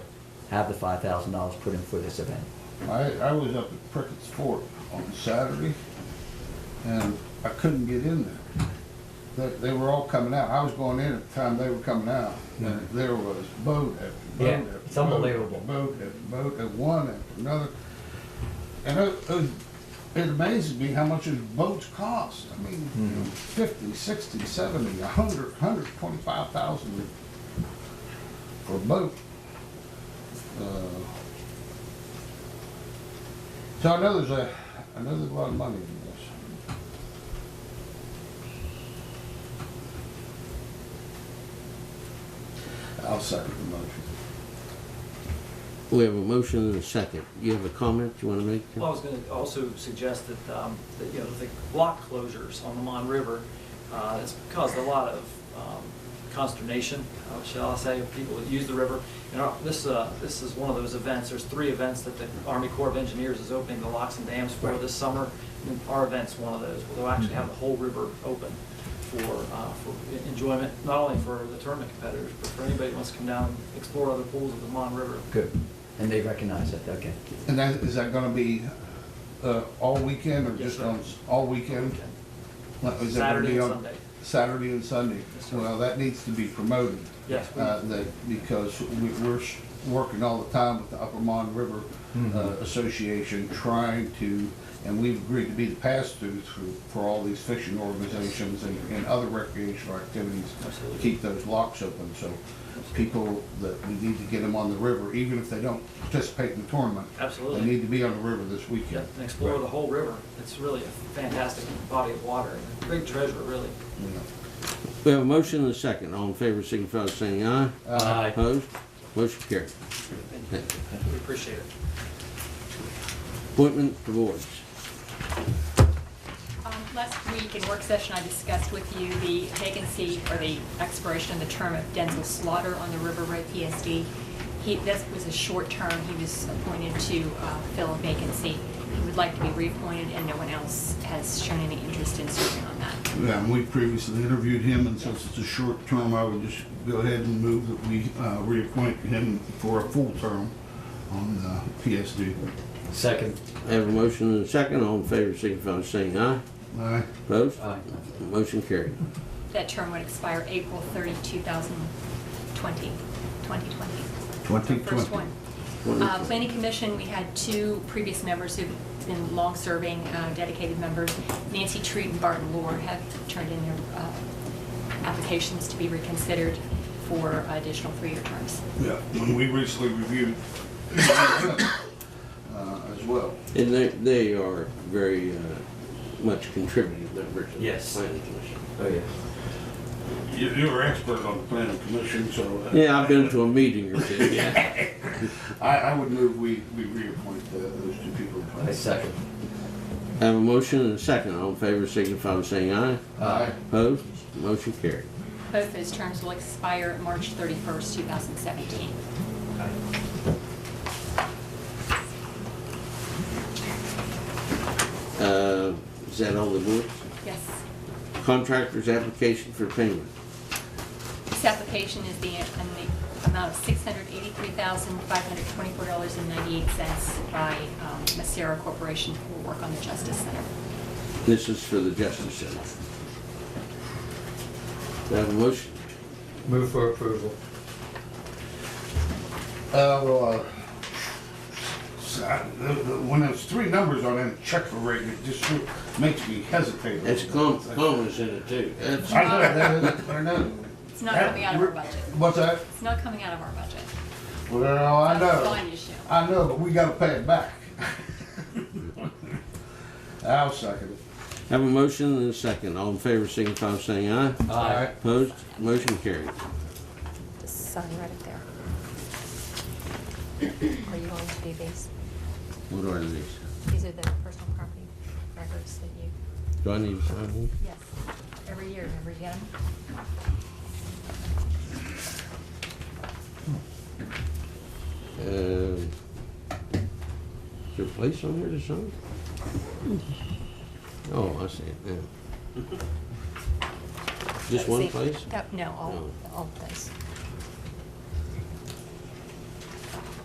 have the five thousand dollars put in for this event. I, I was up at Prickett's Fort on Saturday, and I couldn't get in there. They, they were all coming out. I was going in at the time they were coming out, and there was boat after boat Yeah, after it's boat unbelievable. after Boat after boat, and one after another. And it, it was- it amazes me how much those boats cost. I mean, you Mm-hmm. know, fifty, sixty, seventy, a hundred, hundred twenty-five thousand for a boat. Uh, so I know there's a, I know there's a lot of money in this. I'll second the motion. We have a motion and a second. You have a comment you want to make? Well, I was going to also suggest that, um, that, you know, the block closures on the Mon River, uh, it's caused a lot of um, consternation, uh, shall I say, of people that use the river. And our- this, uh, this is one of those events, there's three events that the Army Corps of Engineers is opening the locks and dams for this summer. And Our event's one of those, where they'll actually have the whole river open for, uh, for en- enjoyment, not only for the tournament competitors, but for anybody who wants to come down and explore other pools of the Mon River. Good. And they recognize that, okay. And that, is that gonna be, uh, all weekend or Yes, just sir. on, s- all weekend? Weekend. Is that gonna Saturday be and on- Sunday. Saturday and Sunday. Yes, sir. Well, that needs to be promoted. Yes. Uh, that, because we, we're sh- working all the time with the Upper Mon River uh, Association, trying to, and we've agreed to be the pass-through through, for all these fishing organizations and, and other recreational activities. Absolutely. Keep those locks open, so people that, we need to get them on the river, even if they don't participate in the tournament. Absolutely. They need to be on the river this Yeah, weekend. and explore the whole river. It's really a fantastic body of water, and a big treasure, really. You know. We have a motion and a second. All in favor, signify by saying aye. Aye. Opposed? Motion carried. Thank you. We appreciate it. Appointment to boards. Um, Last week in work session, I discussed with you the vacancy or the expiration of the term of Denzel Slaughter on the River Road PSD. He, this was a short term, he was appointed to uh, fill a vacancy. He would like to be reappointed, and no one else has shown any interest in serving on that. Yeah, and we previously interviewed him, and since it's a short term, I would just go ahead and move that we uh, reappoint him for a full term on the PSD. Second. I have a motion and a second. All in favor, signify by saying aye. Aye. Opposed? Aye. Motion carried. That term would expire April 30, 2020, 2020. First 2020. one. Uh, Planning Commission, we had two previous members who've been long-serving, uh, dedicated members. Nancy Treat and Barton Lord have turned in their uh, applications to be reconsidered for additional three-year terms. Yeah, when we recently reviewed uh, as well. And they, they are very uh, much contributing members of the Yes. planning commission. Oh, yeah. You- You're expert on the planning commission, so. uh, Yeah, I've been to a meeting or two. I, I would move we, we reappoint uh, those two people. I second. I have a motion and a second. All in favor, signify by saying aye. Aye. Opposed? Motion carried. Both those terms will expire March 31st, 2017. Uh, Is that all the boards? Yes. Contractor's application for payment. This application is the an- the amount of $683,524.98 by um, Masera Corporation for work on the Justice Center. This is for the Justice Center. Do I have a motion? Move for approval. Uh, well, uh, so I- the- the- when there's three numbers on that check for rate, it just makes me hesitate. a That's little com- bit. commas in it too. That's- I know, I know. It's not coming out of our budget. What's that? It's not coming out of our budget. Well, I That's a know, fine issue. I know, but we gotta pay it back. I'll second it. Have a motion and a second. All in favor, signify by saying aye. Aye. Opposed? Motion carried. Sign right up there. Are you going to do these? What are these? These are the personal property records that you, Do I need to sign these? yes, every year, remember you get 'em? Uh, Is there a place on here to sign? Oh, I see it now. Just one See, place? that- No, all, No. all place.